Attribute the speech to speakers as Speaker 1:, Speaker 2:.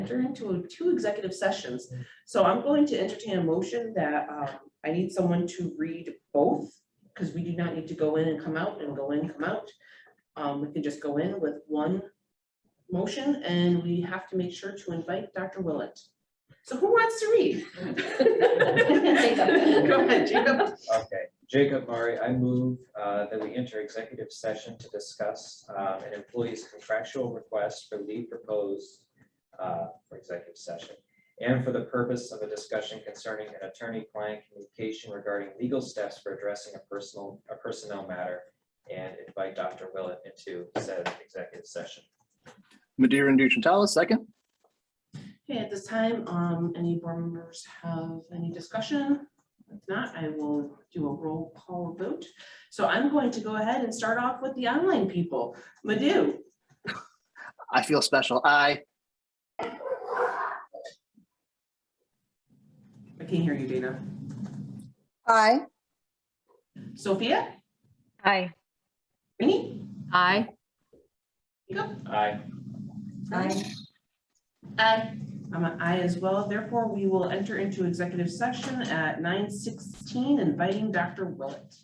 Speaker 1: enter into two executive sessions. So I'm going to entertain a motion that um, I need someone to read both, because we do not need to go in and come out and go in, come out. Um, We can just go in with one motion, and we have to make sure to invite Dr. Willett. So who wants to read?
Speaker 2: Jacob.
Speaker 1: Go ahead, Jacob.
Speaker 3: Okay, Jacob Murray, I move uh, that we enter executive session to discuss uh, an employee's contractual request for leave proposed uh, for executive session and for the purpose of a discussion concerning an attorney-client communication regarding legal steps for addressing a personal, a personnel matter and invite Dr. Willett into said executive session.
Speaker 4: Madeira and Duchantala, second.
Speaker 1: Okay, at this time, um, any board members have any discussion? If not, I will do a roll call vote. So I'm going to go ahead and start off with the online people. Madhu,
Speaker 4: I feel special. I,
Speaker 1: I can't hear you, Dana.
Speaker 5: Aye.
Speaker 1: Sophia,
Speaker 2: Aye.
Speaker 1: Rainey,
Speaker 2: Aye.
Speaker 1: Jacob?
Speaker 3: Aye.
Speaker 5: Aye.
Speaker 1: Aye. I'm an aye as well. Therefore, we will enter into executive session at nine sixteen, inviting Dr. Willett.